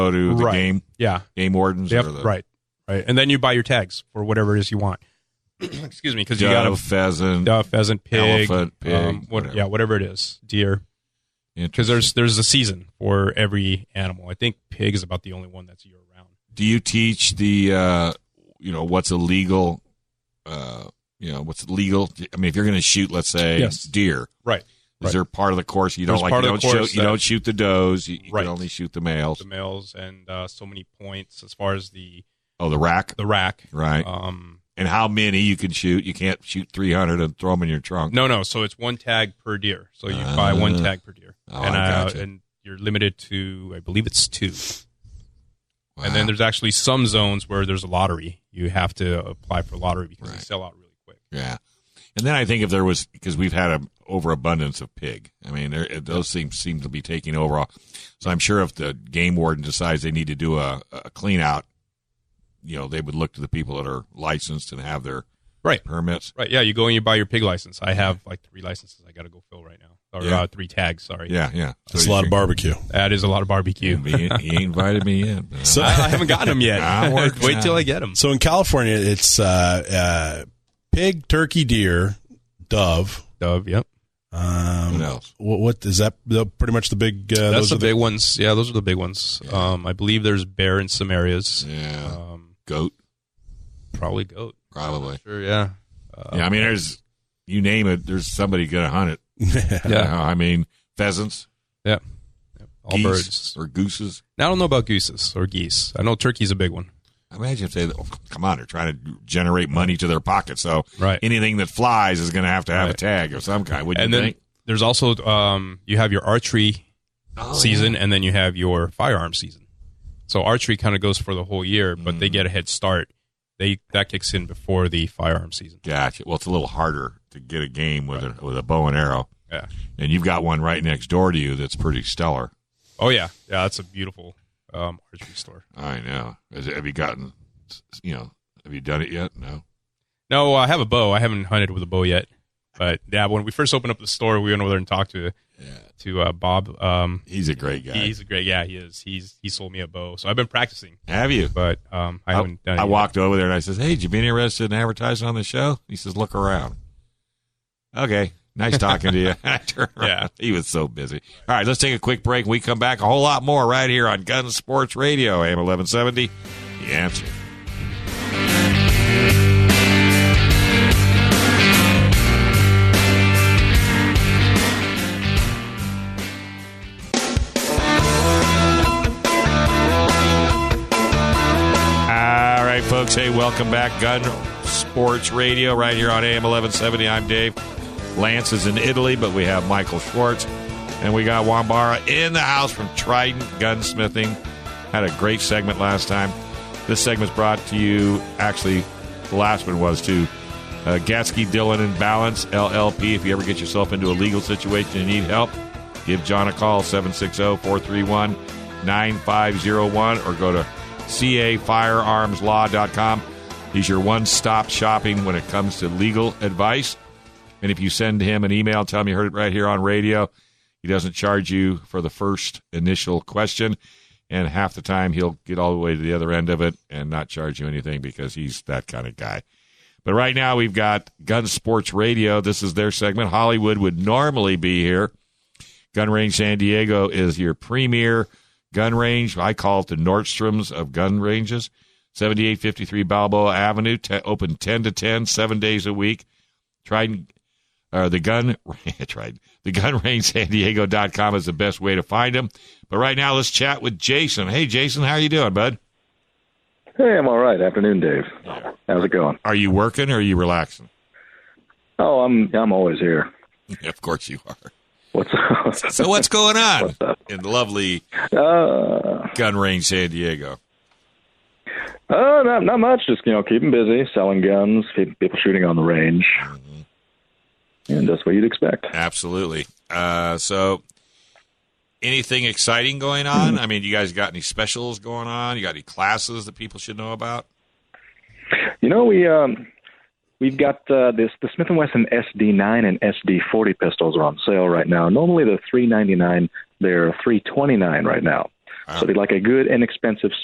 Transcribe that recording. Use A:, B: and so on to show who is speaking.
A: go to the
B: Right.
A: game
B: Yeah.
A: game wardens
B: Yep.
A: or the
B: Right. Right. And then you buy your tags for whatever it is you want. Excuse me, because you got
A: dove,
B: a
A: pheasant,
B: dove, pheasant, pig,
A: elephant, pig,
B: um, what,
A: whatever.
B: yeah, whatever it is, deer. Because there's there's a season for every animal. I think pig is about the only one that's year round.
A: do you teach the uh, you know what's illegal uh, you know what's legal i mean if you're going to shoot let's say
B: Yes.
A: deer
B: Right.
A: is
B: Right.
A: there part of the course you don't
B: There's
A: like
B: part
A: you
B: of
A: don't,
B: the course
A: shoot, you
B: that-
A: don't shoot the does you, you
B: Right.
A: can only shoot the
B: The
A: males
B: males and uh, so many points as far as the
A: oh the rack
B: the rack.
A: right
B: Um,
A: and how many you can shoot you can't shoot 300 and throw them in your trunk
B: no, no. So it's one tag per deer. So you buy
A: Ah.
B: one tag per deer,
A: Oh,
B: and
A: I
B: uh,
A: gotcha.
B: and you're limited to I believe it's two.
A: Wow.
B: And
A: Uh-huh.
B: then there's actually some zones where there's a lottery. You have to apply for lottery because they
A: Right.
B: sell out really quick.
A: yeah and then i think if there was because we've had an overabundance of pig i mean there, those things seem to be taking over so i'm sure if the game warden decides they need to do a, a clean out you know they would look to the people that are licensed and have their
B: Right.
A: permits
B: Right. Yeah. You go and you buy your pig license. I have like three licenses I got to go fill right now, or
A: Yeah.
B: uh, three tags. Sorry.
A: yeah yeah
C: That's a lot of barbecue.
B: That is a lot of barbecue.
A: he, he invited me in
C: So,
B: I, I haven't gotten them yet.
A: Ah, work
B: Wait till
A: time.
B: I get them.
C: so in California, it's uh, uh, pig, turkey, deer, dove.
B: Dove. Yep.
C: Um,
A: What else?
C: What, what is that? The, pretty much the big. Uh,
B: That's
C: those
B: the
C: are the
B: big ones. Yeah, those are the big ones. Um, I believe there's bear in some areas.
A: yeah
B: Um,
A: goat
B: probably goat.
A: probably
B: Sure. Yeah. Uh,
A: yeah i mean there's you name it there's somebody gonna hunt it
B: Yeah.
A: You know, i mean pheasants
B: All
A: geese,
B: birds.
A: or gooses
B: Now I don't know about gooses or geese. I know turkey's a big one.
A: Imagine if they oh, come on, they're trying to generate money to their pocket. So
B: Right.
A: anything that flies is going to have to have a
B: Right.
A: tag of some kind. Wouldn't
B: and
A: you
B: then
A: think?
B: there's also um, you have your archery
A: Oh,
B: season, and then you have your firearm season. So archery kind of goes for the whole year, but
A: Hmm.
B: they get a head start. They that kicks in before the firearm season.
A: Gotcha. Well, it's a little harder to get a game with a with a bow and arrow,
B: Yeah.
A: and you've got one right next door to you that's pretty stellar.
B: Oh yeah, yeah. That's a beautiful um, archery store.
A: I know. Has- have you gotten? You know, have you done it yet? No.
B: No, I have a bow. I haven't hunted with a bow yet, but yeah. When we first opened up the store, we went over there and talked to to uh, Bob. Um,
A: He's a great guy.
B: He's a great. Yeah, he is. He's he sold me a bow, so I've been practicing,
A: have you?
B: but um, I, haven't done. it
A: I
B: yet.
A: walked over there and I says, "Hey, you been interested in advertising on the show?" He says, "Look around." Okay, nice talking to you. I turned around.
B: Yeah.
A: he was so busy. All right, let's take a quick break. When we come back a whole lot more right here on Gun Sports Radio, AM eleven seventy. The answer. All right, folks. Hey, welcome back, Gun Sports Radio, right here on AM 1170. I'm Dave. Lance is in Italy, but we have Michael Schwartz, and we got Wambara in the house from Trident Gunsmithing. Had a great segment last time. This segment's brought to you, actually, the last one was too. Uh, Gatsky, Dillon, and Balance LLP. If you ever get yourself into a legal situation and need help, give John a call 760-431-9501 or go to cafirearmslaw.com. He's your one-stop shopping when it comes to legal advice. And if you send him an email, tell him you heard it right here on radio. He doesn't charge you for the first initial question. And half the time, he'll get all the way to the other end of it and not charge you anything because he's that kind of guy. But right now, we've got Gun Sports Radio. This is their segment. Hollywood would normally be here. Gun Range San Diego is your premier gun range. I call it the Nordstrom's of gun ranges. 7853 Balboa Avenue, te- open 10 to 10, seven days a week. Trident or the gun tried the gun range san diego.com is the best way to find them but right now let's chat with jason hey jason how you doing bud
D: Hey, I'm all right. Afternoon, Dave. How's it going?
A: are you working or are you relaxing
D: Oh, I'm I'm always here.
A: of course you are
D: What's up?
A: so what's going on
D: What's up?
A: in lovely
D: Uh,
A: gun range san diego
D: uh, not not much. Just you know, keeping busy, selling guns, keep people shooting on the range, and that's what you'd expect.
A: absolutely uh, so anything exciting going on i mean you guys got any specials going on you got any classes that people should know about
D: You know, we um, we've got uh, this the Smith and Wesson SD9 and SD40 pistols are on sale right now. Normally they're three ninety nine. They're three twenty nine right now. So they like a good, inexpensive